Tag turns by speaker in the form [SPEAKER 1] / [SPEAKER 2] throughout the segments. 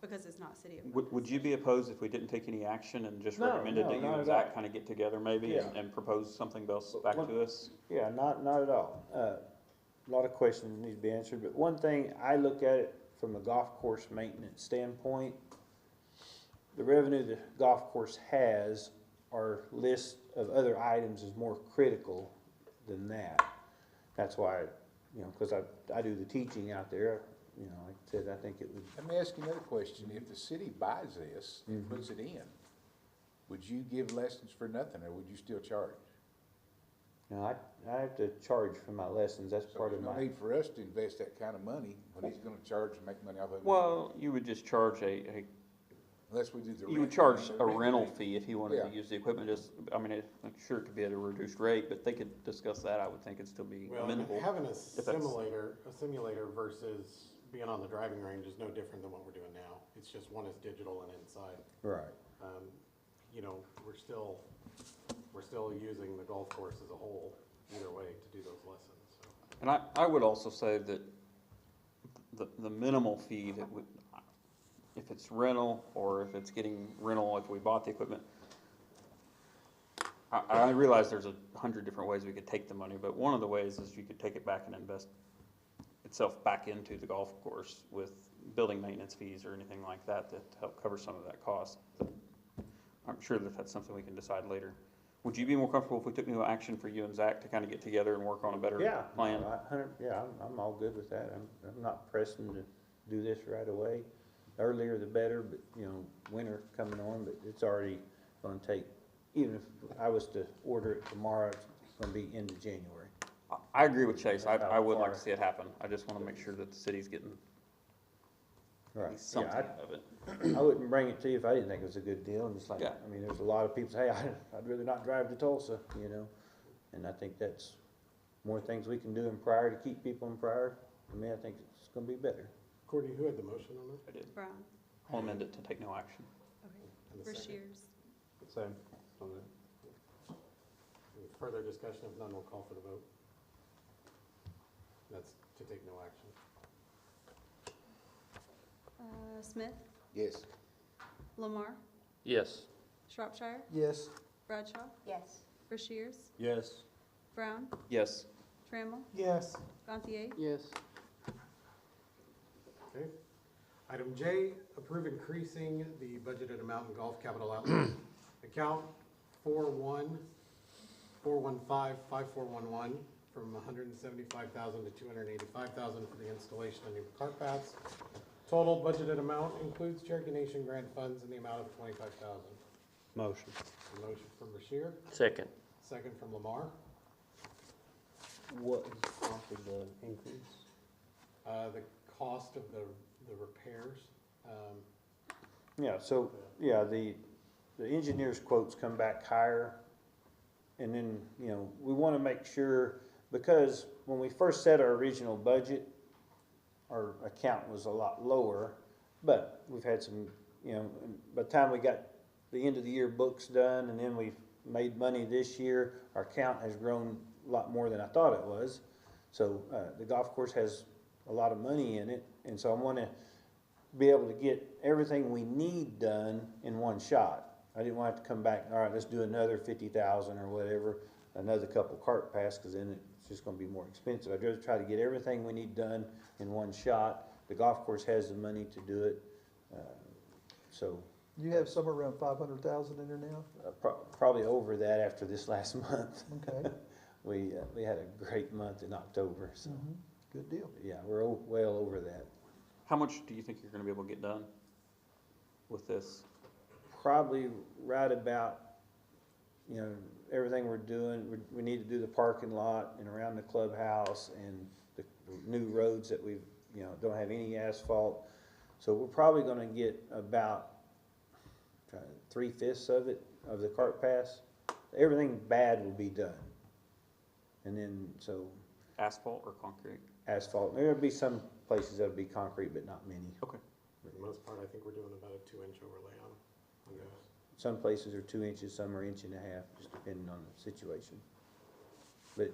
[SPEAKER 1] because it's not city of North.
[SPEAKER 2] Would, would you be opposed if we didn't take any action and just
[SPEAKER 3] No,
[SPEAKER 2] recommended
[SPEAKER 3] no,
[SPEAKER 2] that you
[SPEAKER 3] not
[SPEAKER 2] and
[SPEAKER 3] at
[SPEAKER 2] Zach
[SPEAKER 3] all.
[SPEAKER 2] kind of get together maybe and,
[SPEAKER 3] Yeah.
[SPEAKER 2] and propose something else back
[SPEAKER 3] what-
[SPEAKER 2] to us?
[SPEAKER 3] Yeah, not, not at all. Uh, A lot of questions need to be answered, but one thing, I look at it from a golf course maintenance standpoint. The revenue the golf course has, our list of other items is more critical than that. That's why, you know, cause I, I do the teaching out there, you know, like I said, I think it would,
[SPEAKER 4] Let me ask you another question. If the city buys this
[SPEAKER 3] Mm-hmm.
[SPEAKER 4] and puts it in, would you give lessons for nothing or would you still charge?
[SPEAKER 3] you know, I, I have to charge for my lessons, that's
[SPEAKER 4] So
[SPEAKER 3] part
[SPEAKER 4] there's
[SPEAKER 3] of
[SPEAKER 4] no
[SPEAKER 3] my,
[SPEAKER 4] need for us to invest that kind of money when he's gonna charge and make money off of it.
[SPEAKER 2] Well, you would just charge a, a,
[SPEAKER 4] Unless we do the.
[SPEAKER 2] you would
[SPEAKER 4] rent.
[SPEAKER 2] charge
[SPEAKER 4] The
[SPEAKER 2] a
[SPEAKER 4] rent
[SPEAKER 2] rental
[SPEAKER 4] thing.
[SPEAKER 2] fee if he wanted
[SPEAKER 4] Yeah.
[SPEAKER 2] to use the equipment, just, I mean, it- I'm sure it could be at a reduced rate, but they could discuss that, I would think it'd still be
[SPEAKER 5] Well, and
[SPEAKER 2] amendable.
[SPEAKER 5] having a
[SPEAKER 2] that's-
[SPEAKER 5] simulator, a simulator versus being on the driving range is no different than what we're doing now. It's just one is digital and inside.
[SPEAKER 3] right.
[SPEAKER 5] Um, you know, we're still, we're still using the golf course as a whole, either way, to do those lessons, so.
[SPEAKER 2] And I, I would also say that the, the minimal fee that would, if it's rental or if it's getting rental, if we bought the equipment. I, I realize there's a hundred different ways we could take the money, but one of the ways is you could take it back and invest itself back into the golf course with building maintenance fees or anything like that that help cover some of that cost. I'm sure that that's something we can decide later. Would you be more comfortable if we took new action for you and Zach to kind of get together and work on a better
[SPEAKER 3] Yeah.
[SPEAKER 2] plan?
[SPEAKER 3] I- hundred- Yeah, I'm, I'm all good with that. I'm, I'm not pressing to do this right away. Earlier the better, but, you know, winter coming on, but it's already gonna take, even if I was to order it tomorrow, it's gonna be end of January.
[SPEAKER 2] I- I agree with Chase. I,
[SPEAKER 3] That's how
[SPEAKER 2] I would like
[SPEAKER 3] far-
[SPEAKER 2] to see it happen. I just want to make sure that the city's getting at
[SPEAKER 3] Right.
[SPEAKER 2] least
[SPEAKER 3] Yeah,
[SPEAKER 2] something out of it.
[SPEAKER 3] I, I wouldn't bring it to you if I didn't think it was a good deal, and it's like,
[SPEAKER 2] Yeah.
[SPEAKER 3] I mean, there's a lot of people say, hey, I- I'd rather not drive to Tulsa, you know? And I think that's more things we can do in Pryor to keep people in Pryor. I mean, I think it's gonna be better.
[SPEAKER 5] Courtney, who had the motion on that?
[SPEAKER 2] I did.
[SPEAKER 1] Brown,
[SPEAKER 2] I'll amend it to take no action.
[SPEAKER 5] And the
[SPEAKER 1] for
[SPEAKER 5] second?
[SPEAKER 1] Shears.
[SPEAKER 5] Same. On that. Any Further discussion, if none, we'll call for the vote. That's to take no action.
[SPEAKER 1] Uh, Smith,
[SPEAKER 4] Yes.
[SPEAKER 1] Lamar,
[SPEAKER 2] Yes.
[SPEAKER 1] Shropshire,
[SPEAKER 3] Yes.
[SPEAKER 1] Bradshaw,
[SPEAKER 6] Yes.
[SPEAKER 1] for Shears,
[SPEAKER 3] Yes.
[SPEAKER 1] Brown,
[SPEAKER 2] Yes.
[SPEAKER 1] Trammell,
[SPEAKER 5] Yes.
[SPEAKER 1] Gantier,
[SPEAKER 3] Yes.
[SPEAKER 5] Okay. Item J, approve increasing the budgeted amount in golf capital outlay. Account four one, four one five, five four one one, from hundred and seventy-five thousand to two hundred and eighty-five thousand for the installation of new cart paths. Total budgeted amount includes Cherokee Nation grant funds in the amount of twenty-five thousand.
[SPEAKER 3] Motion.
[SPEAKER 5] Motion from Bashir,
[SPEAKER 7] Second.
[SPEAKER 5] second from Lamar.
[SPEAKER 3] What is prompted the increase?
[SPEAKER 5] Uh, the cost of the, the repairs, um,
[SPEAKER 3] Yeah, so, yeah, the, the engineer's quotes come back higher. And then, you know, we wanna make sure, because when we first set our original budget, our account was a lot lower, but we've had some, you know, and by the time we got the end of the year books done, and then we've made money this year, our account has grown a lot more than I thought it was. So, uh, the golf course has a lot of money in it, and so I wanna be able to get everything we need done in one shot. I didn't want to come back, all right, let's do another fifty thousand or whatever, another couple cart pass, cause then it's just gonna be more expensive. I'd rather try to get everything we need done in one shot. The golf course has the money to do it, uh, so,
[SPEAKER 8] You have somewhere around five hundred thousand in there now?
[SPEAKER 3] uh, pro- probably over that after this last month.
[SPEAKER 8] Okay,
[SPEAKER 3] We, uh, we had a great month in October, so,
[SPEAKER 8] good deal.
[SPEAKER 3] yeah, we're o- well over that.
[SPEAKER 2] How much do you think you're going to be able to get done with this?
[SPEAKER 3] probably right about, you know, everything we're doing, we, we need to do the parking lot and around the clubhouse and the new roads that we've, you know, don't have any asphalt. So we're probably gonna get about three fifths of it, of the cart pass. Everything bad will be done. And then, so
[SPEAKER 2] Asphalt or concrete?
[SPEAKER 3] asphalt, there'll be some places that'll be concrete, but not many.
[SPEAKER 2] Okay.
[SPEAKER 5] For the most part, I think we're doing about a two-inch overlay on, on those.
[SPEAKER 3] Some places are two inches, some are inch and a half, just depending on the situation. But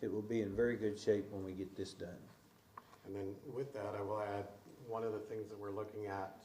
[SPEAKER 3] it will be in very good shape when we get this done.
[SPEAKER 5] And then with that, I will add, one of the things that we're looking at